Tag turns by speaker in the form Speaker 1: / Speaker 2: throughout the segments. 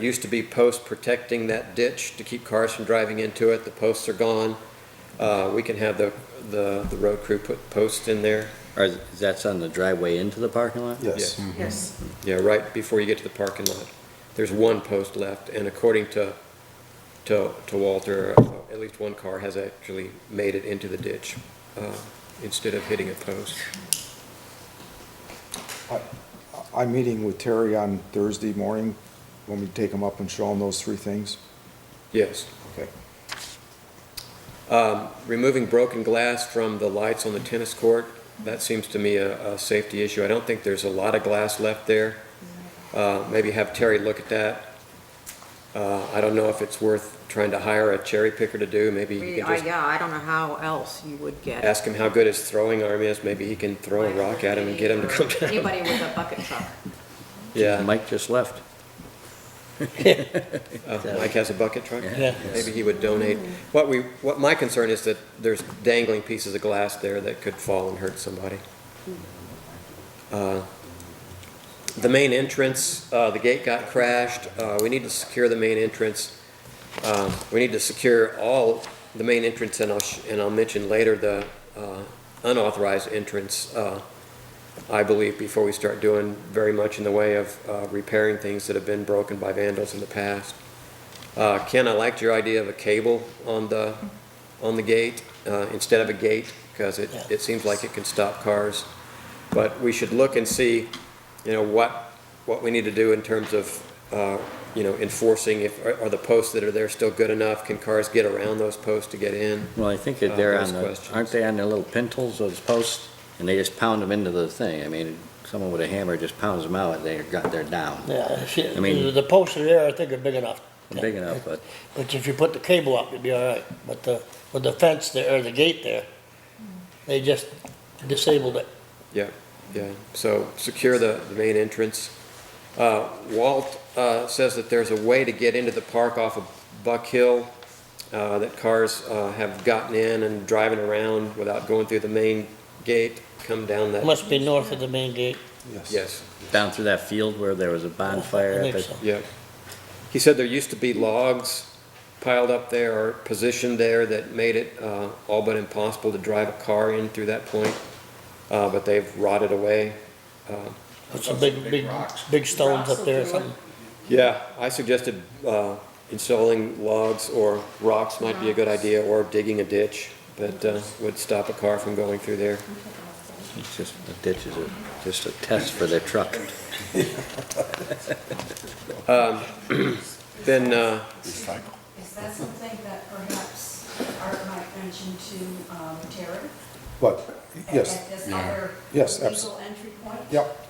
Speaker 1: Used to be posts protecting that ditch to keep cars from driving into it. The posts are gone. Uh, We can have the, the the road crew put posts in there.
Speaker 2: Or is that's on the driveway into the parking lot?
Speaker 3: Yes.
Speaker 4: Yes,
Speaker 1: Yeah, right before you get to the parking lot. There's one post left, and according to, to, to Walter, uh, at least one car has actually made it into the ditch uh, instead of hitting a post.
Speaker 3: Mm-hmm. I'm meeting with Terry on Thursday morning. Want me to take him up and show him those three things?
Speaker 1: Yes.
Speaker 3: Okay.
Speaker 1: Removing broken glass from the lights on the tennis court, that seems to me a, a safety issue. I don't think there's a lot of glass left there. Uh, Maybe have Terry look at that. Uh, I don't know if it's worth trying to hire a cherry picker to do, maybe you
Speaker 4: We-
Speaker 1: can
Speaker 4: I-
Speaker 1: just
Speaker 4: yeah, I don't know how else you would get.
Speaker 1: ask him how good his throwing arm is, maybe he can throw a rock at him and get him to come down.
Speaker 4: Anybody with a bucket truck.
Speaker 1: Yeah,
Speaker 2: Mike just left.
Speaker 1: Uh, Mike has a bucket truck?
Speaker 2: Yeah.
Speaker 1: Maybe he would donate. What we, what my concern is that there's dangling pieces of glass there that could fall and hurt somebody. Uh, The main entrance, uh, the gate got crashed, uh, we need to secure the main entrance. Um, We need to secure all the main entrance, and I'll, sh- and I'll mention later the uh, unauthorized entrance, uh, I believe, before we start doing very much in the way of uh, repairing things that have been broken by vandals in the past. Uh, Ken, I liked your idea of a cable on the, on the gate, uh, instead of a gate, because it, it seems like it can stop cars. But we should look and see, you know, what, what we need to do in terms of, uh, you know, enforcing if, are- are the posts that are there still good enough? Can cars get around those posts to get in?
Speaker 2: Well, I think that
Speaker 1: Uh,
Speaker 2: they're
Speaker 1: those
Speaker 2: on the,
Speaker 1: questions.
Speaker 2: aren't they on their little pintles, those posts? And they just pound them into the thing. I mean, someone with a hammer just pounds them out, they're, got, they're down.
Speaker 5: Yeah, she-
Speaker 2: I mean-
Speaker 5: the posts are there, I think are big enough.
Speaker 2: Big enough, but
Speaker 5: But if you put the cable up, it'd be all right. But the, with the fence there, or the gate there, they just disabled it.
Speaker 1: Yeah, yeah, so secure the, the main entrance. Uh, Walt, uh, says that there's a way to get into the park off of Buck Hill, uh, that cars, uh, have gotten in and driving around without going through the main gate, come down that.
Speaker 5: Must be north of the main gate.
Speaker 3: Yes.
Speaker 1: Yes,
Speaker 2: down through that field where there was a bonfire.
Speaker 5: I
Speaker 2: up
Speaker 5: think
Speaker 2: at-
Speaker 5: so.
Speaker 1: yeah. He said there used to be logs piled up there or positioned there that made it, uh, all but impossible to drive a car in through that point, uh, but they've rotted away.
Speaker 5: Put some big, big, big stones up there or something.
Speaker 1: Yeah, I suggested uh, installing logs or rocks might be a good idea, or digging a ditch that uh, would stop a car from going through there.
Speaker 2: It's just, the ditch is a- just a test for their truck.
Speaker 1: Then, uh,
Speaker 6: Is that something that perhaps Art might mention to um, Terry?
Speaker 3: But,
Speaker 6: At-
Speaker 3: yes,
Speaker 6: At this other
Speaker 3: Yes, abs-
Speaker 6: legal entry point?
Speaker 3: yep.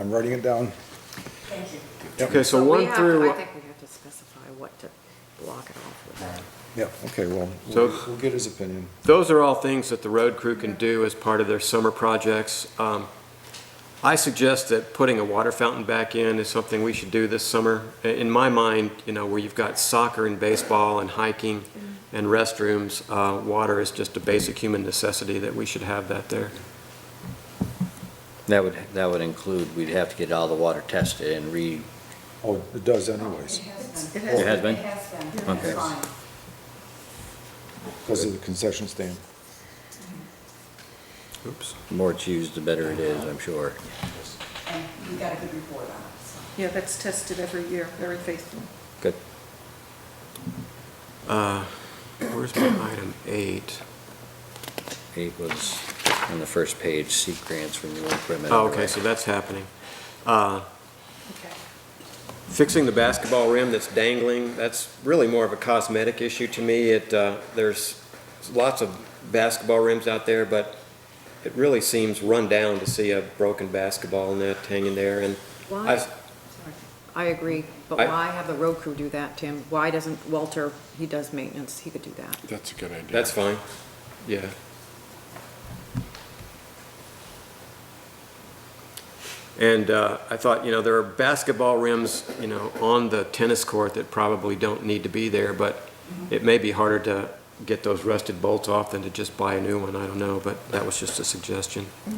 Speaker 3: I'm writing it down.
Speaker 6: Thank you.
Speaker 1: okay, so
Speaker 4: we
Speaker 1: one
Speaker 4: have- I
Speaker 1: through,
Speaker 4: think we have to specify what to block it off with.
Speaker 3: Yeah, okay, well,
Speaker 1: So-
Speaker 3: we'll we'll get his opinion.
Speaker 1: those are all things that the road crew can do as part of their summer projects. Um, I suggest that putting a water fountain back in is something we should do this summer. I- In my mind, you know, where you've got soccer and baseball and hiking and restrooms, uh, water is just a basic human necessity that we should have that there.
Speaker 2: That would, that would include, we'd have to get all the water tested and re,
Speaker 3: Oh, it does
Speaker 6: It
Speaker 3: anyways,
Speaker 6: has been.
Speaker 2: It has been?
Speaker 6: It has been.
Speaker 2: Okay.
Speaker 6: It's fine.
Speaker 3: because of the concession stand.
Speaker 1: Oops.
Speaker 2: the more it's used, the better it is, I'm sure.
Speaker 6: And you got a good report on it, so.
Speaker 7: Yeah, that's tested every year, very faithful.
Speaker 2: Good.
Speaker 1: Uh, Where's my item eight?
Speaker 2: It was on the first page, seek grants for new equipment.
Speaker 1: Oh, okay, so that's happening. Uh,
Speaker 7: Okay.
Speaker 1: Fixing the basketball rim that's dangling, that's really more of a cosmetic issue to me. It, uh, there's lots of basketball rims out there, but it really seems run down to see a broken basketball net hanging there, and I,
Speaker 4: Why, I agree, but
Speaker 1: I-
Speaker 4: why have the road crew do that, Tim? Why doesn't Walter, he does maintenance, he could do that.
Speaker 8: That's a good idea.
Speaker 1: that's fine, yeah. And uh, I thought, you know, there are basketball rims, you know, on the tennis court that probably don't need to be there, but it may be harder to get those rusted bolts off than to just buy a new one, I don't know, but that was just a suggestion.
Speaker 2: I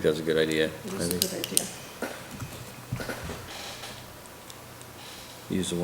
Speaker 2: think that's a good idea.
Speaker 7: It
Speaker 2: I
Speaker 7: is a
Speaker 2: think
Speaker 7: good idea.
Speaker 2: Use the